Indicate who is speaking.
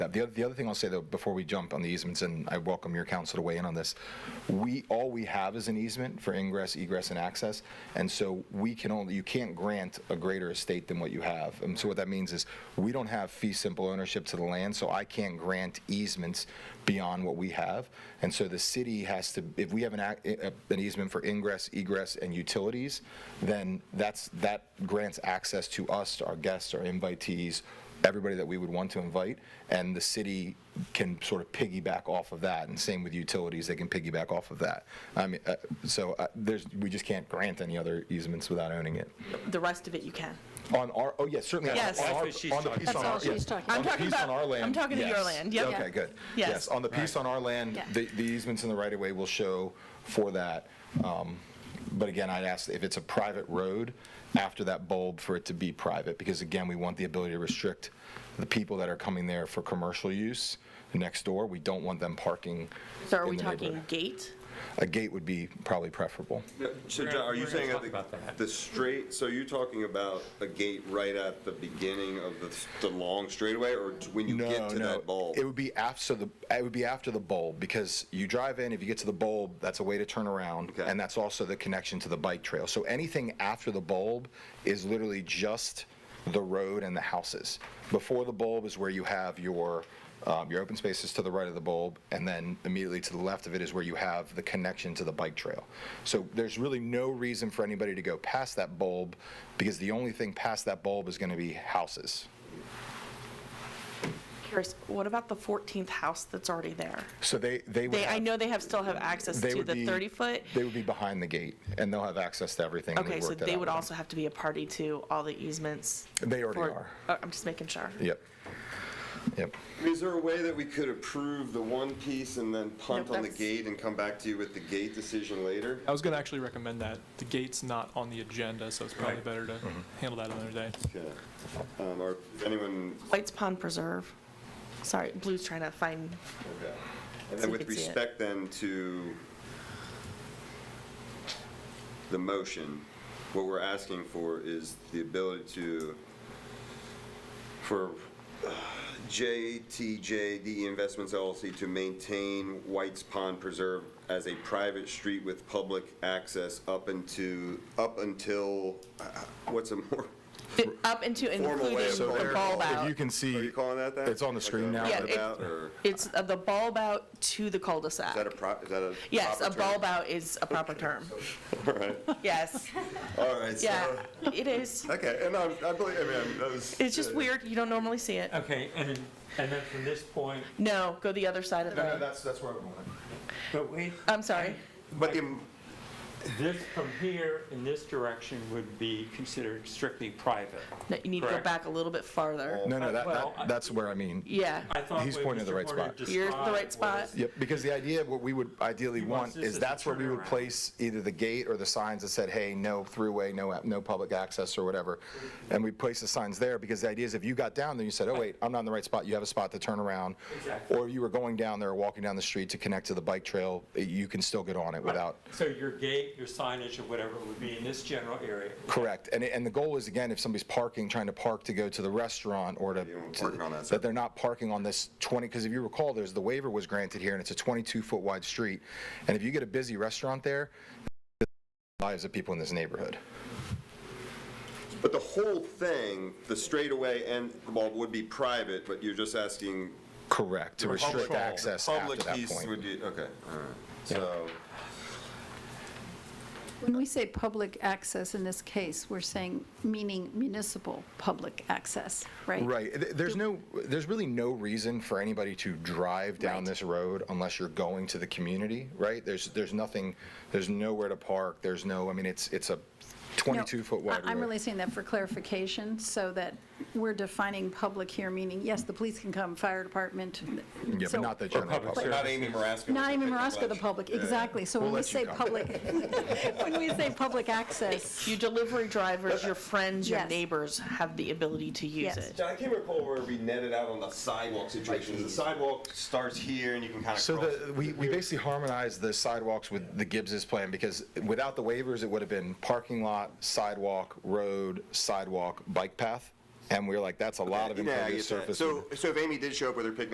Speaker 1: that. The other, the other thing I'll say though, before we jump on the easements, and I welcome your counsel to weigh in on this, we, all we have is an easement for ingress, egress, and access, and so we can only, you can't grant a greater estate than what you have. And so what that means is, we don't have fee simple ownership to the land, so I can't grant easements beyond what we have. And so the city has to, if we have an, ac- a- an easement for ingress, egress, and utilities, then that's, that grants access to us, our guests, our invitees, everybody that we would want to invite, and the city can sort of piggyback off of that, and same with utilities, they can piggyback off of that. I mean, uh, so uh, there's, we just can't grant any other easements without owning it.
Speaker 2: The rest of it you can.
Speaker 1: On our, oh, yes, certainly. on
Speaker 2: Yes.
Speaker 1: our-
Speaker 2: That's
Speaker 3: what she's
Speaker 1: on the
Speaker 3: talking
Speaker 1: piece on
Speaker 3: about.
Speaker 1: our-
Speaker 4: That's what she's
Speaker 1: yes.
Speaker 4: talking
Speaker 1: On
Speaker 2: about.
Speaker 1: the
Speaker 2: I'm talking
Speaker 1: piece on
Speaker 2: about-
Speaker 1: our land,
Speaker 2: I'm talking to your
Speaker 1: yes.
Speaker 2: land, yep.
Speaker 1: Okay, good.
Speaker 2: Yes.
Speaker 1: Yes, on the piece on our land,
Speaker 4: Yeah.
Speaker 1: the the easements in the right-of-way will show for that. Um, But again, I'd ask if it's a private road, after that bulb, for it to be private, because again, we want the ability to restrict the people that are coming there for commercial use next door. We don't want them parking
Speaker 2: So are
Speaker 1: in
Speaker 2: we
Speaker 1: the
Speaker 2: talking
Speaker 1: neighborhood.
Speaker 2: gate?
Speaker 1: A gate would be probably preferable.
Speaker 5: So
Speaker 3: We're
Speaker 5: John,
Speaker 3: gonna-
Speaker 5: are you
Speaker 3: we're gonna
Speaker 5: saying
Speaker 3: talk
Speaker 5: that the-
Speaker 3: about that.
Speaker 5: the straight, so you're talking about a gate right at the beginning of the, the long straightaway or t- when you get to that bulb?
Speaker 1: It would be after the it would be after the bulb because you drive in. If you get to the bulb, that's a way to turn around,
Speaker 5: Okay.
Speaker 1: and that's also the connection to the bike trail. So anything after the bulb is literally just the road and the houses. Before the bulb is where you have your um, your open spaces to the right of the bulb, and then immediately to the left of it is where you have the connection to the bike trail. So there's really no reason for anybody to go past that bulb because the only thing past that bulb is going to be houses.
Speaker 2: Curious, what about the 14th house that's already there?
Speaker 1: So they they would
Speaker 2: They, I
Speaker 1: have-
Speaker 2: know they have, still have access
Speaker 1: They
Speaker 2: to
Speaker 1: would
Speaker 2: the
Speaker 1: be-
Speaker 2: 30-foot.
Speaker 1: They would be behind the gate, and they'll have access to everything. and we've
Speaker 2: Okay, so
Speaker 1: worked that
Speaker 2: they
Speaker 1: out with
Speaker 2: would
Speaker 1: them.
Speaker 2: also have to be a party to all the easements?
Speaker 1: They already
Speaker 2: for-
Speaker 1: are.
Speaker 2: Oh, I'm just making sure.
Speaker 1: Yep. Yep.
Speaker 5: I mean, Is there a way that we could approve the one piece and then punt
Speaker 2: Nope,
Speaker 5: on the
Speaker 2: that's-
Speaker 5: gate and come back to you with the gate decision later?
Speaker 6: I was going to actually recommend that. The gate's not on the agenda, so it's probably better to handle that another day.
Speaker 5: Okay. Um, or if anyone,
Speaker 2: White's Pond Preserve. Sorry, Blue's trying to find,
Speaker 5: okay. And
Speaker 2: So
Speaker 5: then
Speaker 2: you
Speaker 5: with
Speaker 2: can see it.
Speaker 5: respect then to the motion, what we're asking for is the ability to, for uh, JTJD E Investments LLC to maintain White's Pond Preserve as a private street with public access up into, up until, uh, what's a more,
Speaker 2: up into
Speaker 5: Formal way
Speaker 2: including
Speaker 5: of So
Speaker 2: the
Speaker 5: there-
Speaker 2: bulb
Speaker 1: If you
Speaker 2: out.
Speaker 1: can
Speaker 5: are
Speaker 1: see,
Speaker 5: you calling that that?
Speaker 1: It's on the
Speaker 5: Like
Speaker 1: screen
Speaker 5: a
Speaker 1: now,
Speaker 2: Yeah,
Speaker 1: but-
Speaker 2: it-
Speaker 5: roundabout or-
Speaker 2: It's uh, the bulb out to the
Speaker 5: Is that a
Speaker 2: cul-de-sac.
Speaker 5: pro, is that a?
Speaker 2: Yes, a
Speaker 5: proper term?
Speaker 2: bulb out is a proper term.
Speaker 5: All right,
Speaker 2: Yes,
Speaker 5: all right, so,
Speaker 2: yeah, it is.
Speaker 5: okay, and I, I believe, I mean, that was.
Speaker 2: It's just
Speaker 5: uh,
Speaker 2: weird, you don't normally see it.
Speaker 3: Okay, and, and then from this point,
Speaker 2: No, go the other side of
Speaker 5: No, no,
Speaker 2: the,
Speaker 5: that's, that's where I'm going.
Speaker 3: but wait,
Speaker 2: I'm sorry.
Speaker 5: But the,
Speaker 3: this from here in this direction would be considered strictly private.
Speaker 2: No, you need to go
Speaker 3: Correct.
Speaker 2: back a little bit farther.
Speaker 1: no, no, that,
Speaker 3: Well,
Speaker 1: that
Speaker 3: I-
Speaker 1: that's where I mean.
Speaker 2: Yeah,
Speaker 3: I thought
Speaker 1: He's
Speaker 3: what
Speaker 1: pointing at the
Speaker 3: Mr.
Speaker 1: right
Speaker 3: Porter
Speaker 1: spot.
Speaker 2: You're at the right
Speaker 3: described
Speaker 2: spot.
Speaker 3: was-
Speaker 1: Yep, because the idea, what we would ideally
Speaker 3: He wants
Speaker 1: want
Speaker 3: this
Speaker 1: is
Speaker 3: as a
Speaker 1: that's where we would
Speaker 3: turnaround.
Speaker 1: place either the gate or the signs that said, hey, no throughway, no, no public access or whatever. And we'd place the signs there because the idea is if you got down there, you said, oh, wait, I'm not in the right spot, you have a spot to turn around.
Speaker 3: Exactly.
Speaker 1: Or you were going down there, walking down the street to connect to the bike trail, eh, you can still get on it without
Speaker 3: So your gate, your signage or whatever would be in this general area.
Speaker 1: Correct. And, and the goal is, again, if somebody's parking, trying to park to go to the restaurant or to,
Speaker 5: You don't park on that
Speaker 1: that they're not parking on this 20, because if you recall, there's, the waiver was granted here, and it's a 22-foot wide street. And if you get a busy restaurant there, it lives of people in this neighborhood.
Speaker 5: but the whole thing, the straightaway and the bulb would be private, but you're just asking.
Speaker 1: Correct, to
Speaker 5: public-
Speaker 1: restrict
Speaker 5: the
Speaker 1: access after that
Speaker 5: Public piece would
Speaker 1: point.
Speaker 5: be, okay, all right, so,
Speaker 4: When we say public access in this case, we're saying, meaning municipal public access, right?
Speaker 1: Right. Th- There's no, there's really no reason for anybody to drive down
Speaker 4: Right.
Speaker 1: this road unless you're going to the community, right? There's, there's nothing, there's nowhere to park, there's no, I mean, it's, it's a
Speaker 4: No,
Speaker 1: 22-foot wide
Speaker 4: I- I'm
Speaker 1: road.
Speaker 4: really saying that for clarification, so that we're defining public here, meaning, yes, the police can come, fire department.
Speaker 1: Yeah,
Speaker 4: so-
Speaker 1: but not the general
Speaker 3: public
Speaker 1: public.
Speaker 3: service.
Speaker 5: not Amy Marasco.
Speaker 4: Not even
Speaker 5: Pick
Speaker 4: Marasco, the
Speaker 5: ledge.
Speaker 4: public,
Speaker 5: Yeah, yeah.
Speaker 4: exactly. So when we
Speaker 1: let you
Speaker 4: say
Speaker 1: come.
Speaker 4: public, when we say public access,
Speaker 2: Your delivery drivers, your friends, your
Speaker 4: Yes.
Speaker 2: neighbors have the ability to use
Speaker 4: Yes.
Speaker 2: it.
Speaker 5: John, I can't recall where we netted out on the sidewalk situation, the sidewalk starts here and you can kind of
Speaker 1: So
Speaker 5: cross.
Speaker 1: the, we, we basically harmonized the sidewalks with the Gibbs's plan because without the waivers, it would have been parking lot, sidewalk, road, sidewalk, bike path. And we were like, that's a lot of
Speaker 5: Yeah, I
Speaker 1: impervious
Speaker 5: get that.
Speaker 1: surface.
Speaker 5: So, so if Amy did show up with her picnic